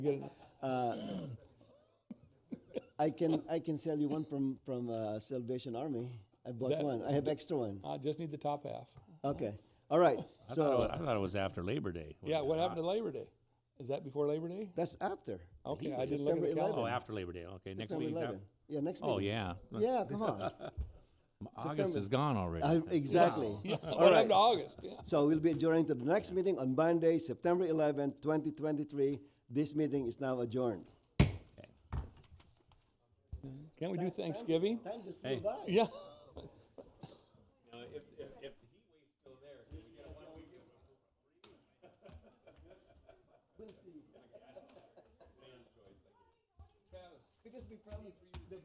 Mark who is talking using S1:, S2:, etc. S1: You got it?
S2: Uh, I can I can sell you one from from uh, Salvation Army. I bought
S1: That-
S2: one. I have extra one.
S1: I just need the top half.
S2: Okay. All right.
S3: Oh. I thought, it, wa-
S2: So
S3: I thought it was after Labor Day.
S1: Yeah, what happened to Labor Day? Is that before Labor Day?
S2: that's after.
S1: Okay, I didn't look at the calendar.
S2: September
S3: Oh,
S2: Labor Day?
S3: after Labor Day. Okay, next
S2: September
S3: week.
S2: 11. Yeah, next meeting.
S3: Oh yeah.
S2: Yeah, come on.
S3: August
S2: September-
S3: is gone already.
S2: I- exactly. Oh, All
S1: What happened to
S2: right.
S1: August? Yeah.
S2: So we'll be adjourning to the next meeting on Monday, September 11, 2023. This meeting is now adjourned.
S1: Can't we do Thanksgiving?
S2: Time just
S3: Hey.
S2: flew by.
S1: Yeah.
S2: Because we promised.